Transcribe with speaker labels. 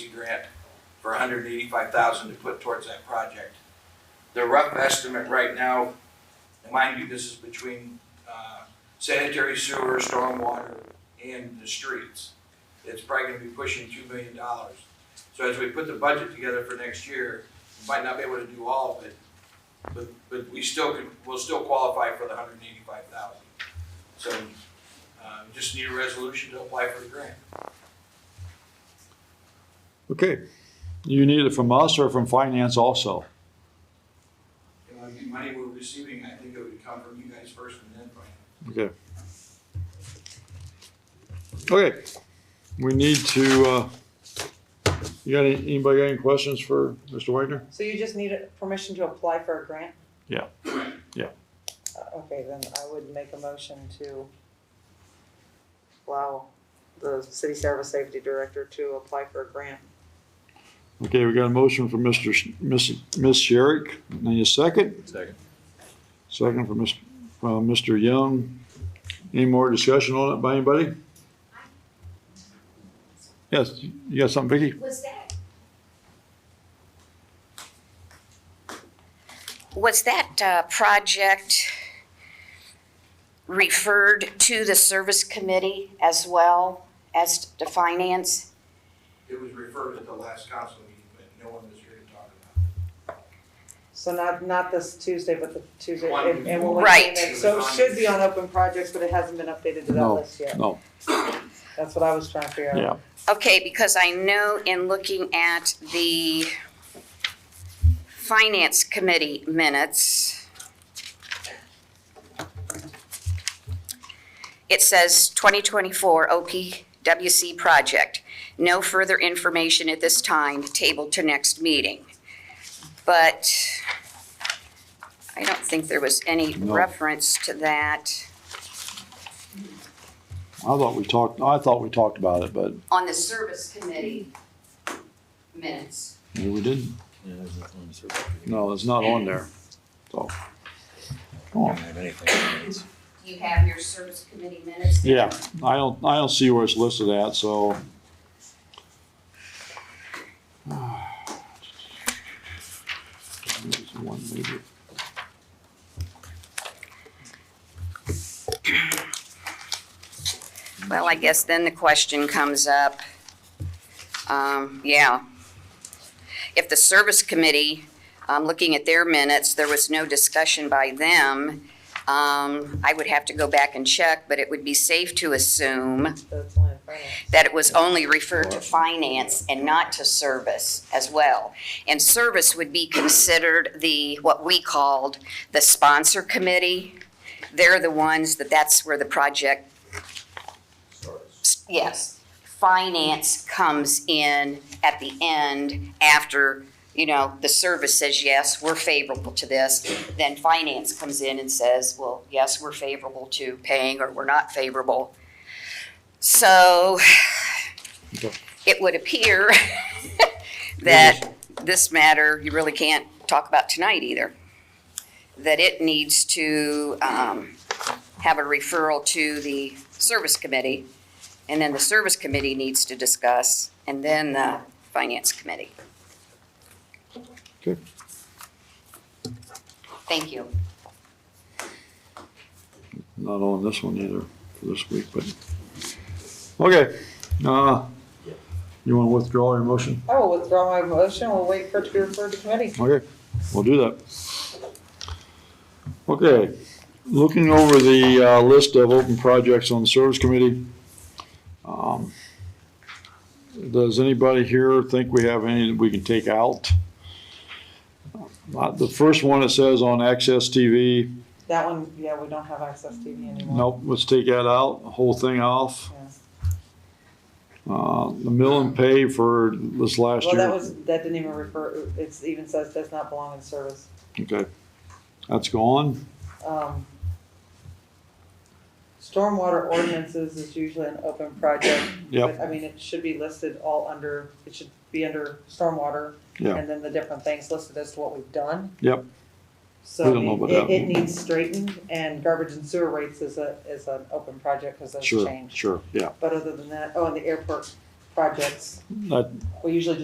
Speaker 1: grant for hundred and eighty-five thousand to put towards that project. The rough estimate right now, and mind you, this is between, uh, sanitary sewer, stormwater, and the streets. It's probably gonna be pushing two million dollars. So as we put the budget together for next year, we might not be able to do all of it, but, but we still could, we'll still qualify for the hundred and eighty-five thousand. So, uh, just need a resolution to apply for the grant.
Speaker 2: Okay, you need it from us or from finance also?
Speaker 1: It would be money we're receiving, I think it would come from you guys first and then from.
Speaker 2: Okay. Okay, we need to, uh, you got, any- anybody got any questions for Mr. Wagner?
Speaker 3: So you just need a- permission to apply for a grant?
Speaker 2: Yeah. Yeah.
Speaker 3: Uh, Okay, then I would make a motion to allow the city service safety director to apply for a grant.
Speaker 2: Okay, we got a motion for Mr. Sh- Miss, Miss Sherrick, and a second?
Speaker 4: Second.
Speaker 2: Second for Miss, from Mr. Young. Any more discussion on it by anybody? Yes, you got something, Vicky?
Speaker 5: Was that? Was that uh, project referred to the service committee as well as to finance?
Speaker 1: It was referred at the last council meeting, but no one was here to talk about
Speaker 3: So not, not this Tuesday, but the Tuesday.
Speaker 1: One
Speaker 3: and- and when we
Speaker 5: Right.
Speaker 3: came in- So it should be on open projects, but it hasn't been updated to that
Speaker 2: No,
Speaker 3: list yet.
Speaker 2: no.
Speaker 3: That's what I was trying to figure out.
Speaker 2: Yeah.
Speaker 5: Okay, because I know in looking at the finance committee minutes, it says 2024 OPWC project. No further information at this time, tabled to next meeting. But I don't think there was any
Speaker 2: No.
Speaker 5: reference to that
Speaker 2: I thought we talked, I thought we talked about it, but
Speaker 5: on the service committee minutes.
Speaker 2: maybe we didn't.
Speaker 4: Yeah, there's nothing on the surface. We
Speaker 2: No, it's not on there. So, come
Speaker 4: don't
Speaker 2: on.
Speaker 4: have anything.
Speaker 5: You have your service committee minutes?
Speaker 2: Yeah, I don't, I don't see where it's listed at, so. There's one maybe.
Speaker 5: Well, I guess then the question comes up, um, yeah. If the service committee, um, looking at their minutes, there was no discussion by them, um, I would have to go back and check, but it would be safe to assume
Speaker 3: That's why I'm finding it.
Speaker 5: that it was only referred to finance and not to service as well. And service would be considered the, what we called the sponsor committee. They're the ones that that's where the project, yes, finance comes in at the end after, you know, the service says, yes, we're favorable to this. Then finance comes in and says, well, yes, we're favorable to paying or we're not favorable. So
Speaker 2: Okay.
Speaker 5: it would appear that this matter, you really can't talk about tonight either. That it needs to um, have a referral to the service committee, and then the service committee needs to discuss, and then the finance committee.
Speaker 2: Okay.
Speaker 5: Thank you.
Speaker 2: Not on this one either for this week, but. Okay, uh, you want to withdraw your motion?
Speaker 3: I will withdraw my motion. We'll wait for it to be referred to committee.
Speaker 2: Okay, we'll do that. Okay, looking over the uh, list of open projects on the service committee. um, Does anybody here think we have any that we can take out? Uh, The first one it says on Access TV,
Speaker 3: That one, yeah, we don't have access TV anymore.
Speaker 2: nope, let's take that out, whole thing off.
Speaker 3: Yeah.
Speaker 2: Uh, The mill and pay for this last
Speaker 3: Well,
Speaker 2: year.
Speaker 3: that was, that didn't even refer, it's even says does not belong in service.
Speaker 2: Okay, that's gone.
Speaker 3: Um, Stormwater ordinances is usually an open project.
Speaker 2: Yep.
Speaker 3: but, I mean, it should be listed all under, it should be under stormwater.
Speaker 2: Yeah.
Speaker 3: And then the different things listed as to what we've done.
Speaker 2: Yep.
Speaker 3: So
Speaker 2: We
Speaker 3: I
Speaker 2: don't know
Speaker 3: mean,
Speaker 2: about
Speaker 3: it,
Speaker 2: that.
Speaker 3: it needs straightened and garbage and sewer rates is a, is an open project because those
Speaker 2: Sure,
Speaker 3: changed.
Speaker 2: sure, yeah.
Speaker 3: But other than that, oh, and the airport projects,
Speaker 2: That,
Speaker 3: we usually just